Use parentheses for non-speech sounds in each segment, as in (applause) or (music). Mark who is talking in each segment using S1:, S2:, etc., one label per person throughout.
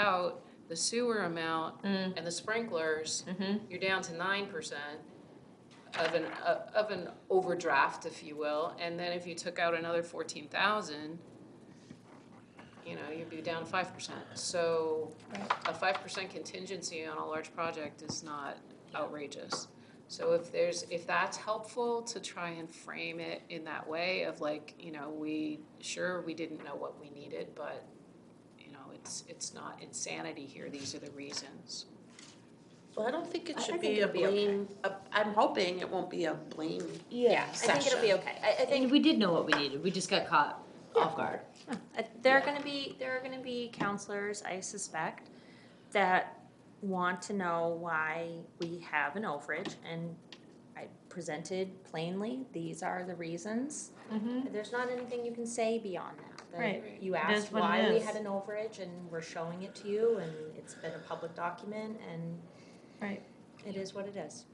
S1: out the sewer amount
S2: Mm,
S1: and the sprinklers,
S2: mm-hmm.
S1: you're down to nine percent of an, uh, of an overdraft, if you will. And then if you took out another fourteen thousand, you know, you'd be down five percent. So a five percent contingency on a large project is not outrageous. So if there's, if that's helpful to try and frame it in that way of like, you know, we, sure, we didn't know what we needed, but, you know, it's, it's not insanity here, these are the reasons.
S3: Well, I don't think
S4: I-
S3: it
S4: I
S3: should
S4: think
S3: be a
S4: it'll be okay.
S3: blame, a- I'm hoping it won't be a blame.
S4: Yeah,
S3: I think it'll be
S5: okay. I, I
S4: and we did know what we needed, we just got caught off guard.
S5: Uh, There are
S3: Yeah.
S5: going to be, there are going to be counselors, I suspect, that want to know why we have an overage, and I presented plainly, these are the reasons. There's not anything you can say beyond that. that
S1: Right.
S5: You
S2: is
S5: asked
S2: what Mm-hmm. it
S5: why we
S2: is.
S5: had an overage, and we're showing it to you, and it's been a public document, and
S2: Right.
S5: it is what it is.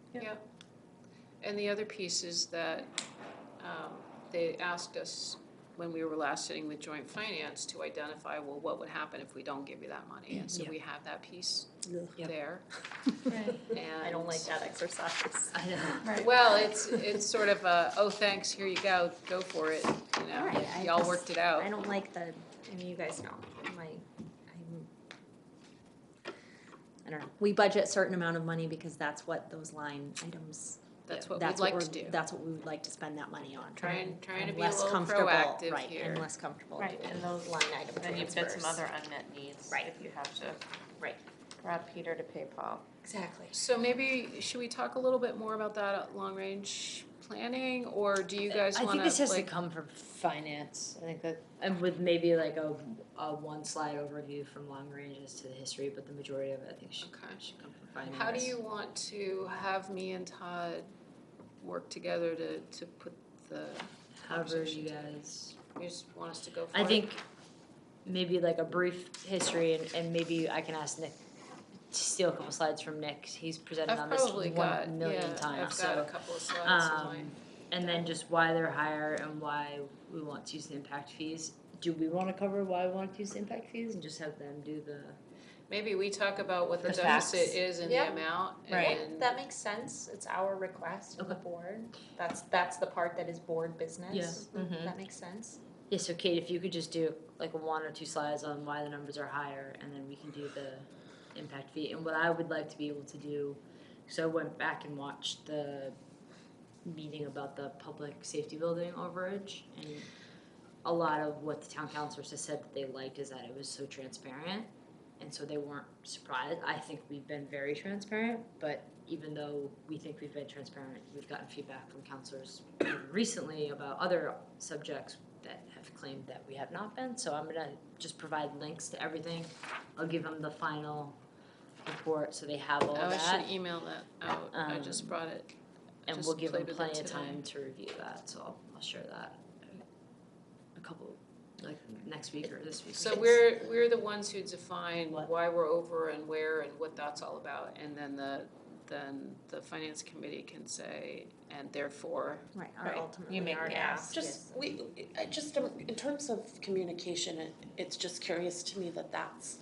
S1: And the other piece is that um, they asked us when we were last sitting with joint finance to identify, well, what would happen if we don't give you that money? And so
S4: Yeah.
S1: we have that piece
S4: Yep.
S1: there.
S2: Right,
S1: And
S5: (laughs) I don't like that exercise.
S4: I (laughs) know.
S2: right.
S1: Well, it's, it's sort of a, oh, thanks, here you go, go for it, you know,
S5: Right, I
S1: y'all
S5: just-
S1: worked it out.
S5: I don't like the, I mean, you guys know, my, I'm, I don't know, we budget certain amount of money because that's what those line items.
S1: That's what we'd
S5: that's
S1: like
S5: we're-
S1: to do.
S5: That's what we would like to spend that money on.
S1: Try and- trying to
S5: I'm
S1: be a
S5: less
S1: little
S5: comfortable-
S1: proactive
S5: Right,
S1: here.
S5: and less comfortable
S2: Right,
S5: doing
S2: and those-
S5: line item transfers.
S2: Then you've got some other unmet needs.
S5: Right.
S2: If you have to.
S5: Right.
S2: Rob Peter to pay Paul.
S5: Exactly.
S1: So maybe, should we talk a little bit more about that at long-range planning, or do you guys
S4: I
S1: wanna,
S4: think this has to
S1: like,
S4: come from finance, I think that, and with maybe like a, a one slide overview from long range as to the history, but the majority of it, I think should,
S1: Okay.
S4: should come from finance.
S1: how do you want to have me and Todd work together to, to put the,
S4: However you guys,
S1: you just want us to go for it?
S4: I think maybe like a brief history and, and maybe I can ask Nick to steal a couple slides from Nick, he's presented
S1: I've
S4: on this
S1: probably got,
S4: one
S1: yeah,
S4: million times,
S1: I've
S4: so.
S1: got a couple of slides in my.
S4: Um, And then just why they're higher and why we want to use the impact fees. Do we wanna cover why we want to use the impact fees and just have them do the?
S1: Maybe we talk about what the
S2: The facts.
S1: deficit is and the
S5: Yeah.
S1: amount,
S2: Right.
S1: and
S5: That makes sense, it's our request of the
S4: Okay.
S5: board, that's, that's the part that is board business.
S2: Yeah. Mhm.
S5: That makes sense.
S4: Yeah, so Kate, if you could just do like one or two slides on why the numbers are higher and then we can do the impact fee. And what I would like to be able to do, so I went back and watched the meeting about the public safety building overage and a lot of what the town councilors has said that they liked is that it was so transparent. And so they weren't surprised. I think we've been very transparent, but even though we think we've been transparent, we've gotten feedback from councilors recently about other subjects that have claimed that we have not been. So I'm gonna just provide links to everything. I'll give them the final report so they have all
S1: oh, I
S4: that.
S1: should email that out, I just
S4: Um,
S1: brought it.
S4: And
S1: just
S4: we'll give them
S1: played with it
S4: plenty of
S1: today.
S4: time to review that, so I'll, I'll share that a couple, like next week or this week.
S1: So we're, we're the ones who define
S4: What?
S1: why we're over and where and what that's all about, and then the, then the finance committee can say, and therefore,
S5: Right,
S2: Right.
S5: our
S2: You
S5: ultimately,
S2: make
S5: our
S2: me
S5: ask
S2: ask.
S5: is.
S3: Just, we, I just, um, in terms of communication, it, it's just curious to me that that's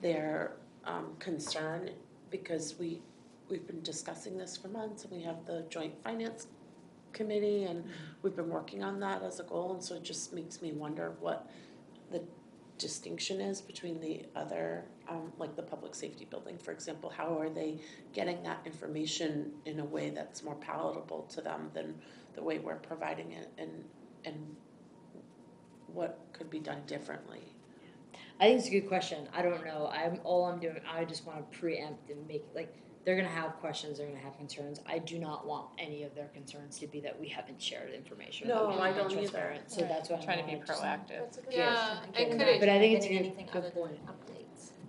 S3: their, um, concern, because we, we've been discussing this for months, and we have the joint finance committee, and we've been working on that as a goal, and so it just makes me wonder what the distinction is between the other, um, like the public safety building, for example, how are they getting that information in a way that's more palatable to them than the way we're providing it and and what could be done differently.
S4: I think it's a good question. I don't know. I'm all I'm doing. I just want to preempt and make like they're gonna have questions. They're gonna have concerns. I do not want any of their concerns to be that we haven't shared information. that
S3: No,
S4: we haven't
S3: I
S4: been
S3: don't either.
S4: transparent. So
S2: Right.
S4: that's why I'm
S2: Trying to be
S4: just-
S2: proactive.
S5: That's a good
S1: Yeah,
S5: question.
S1: and
S5: I'm
S1: could
S5: not
S1: it-
S4: But I think it's
S5: getting
S4: a good-
S5: anything
S4: good
S5: other than
S4: point.
S5: updates.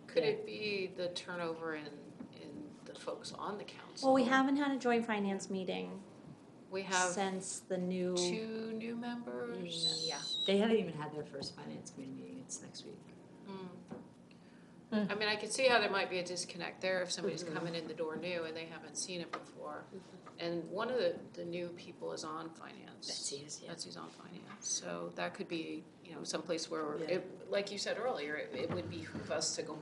S1: could
S4: Yeah.
S1: it be the turnover in, in the folks on the council?
S5: Well, we haven't had a joint finance meeting
S1: We have
S5: since the new.
S1: two new members.
S5: Yeah.
S4: They haven't even had their first finance committee meeting. It's next week.
S1: Hmm. I mean, I could see how there might be a disconnect there if somebody's coming in the door new and they haven't seen it before. And one of the, the new people is on finance.
S4: That's easy. Yeah.
S1: That's who's on finance, so that could be, you know, someplace where,
S3: Yeah.
S1: it, like you said earlier, it, it would behoove us to go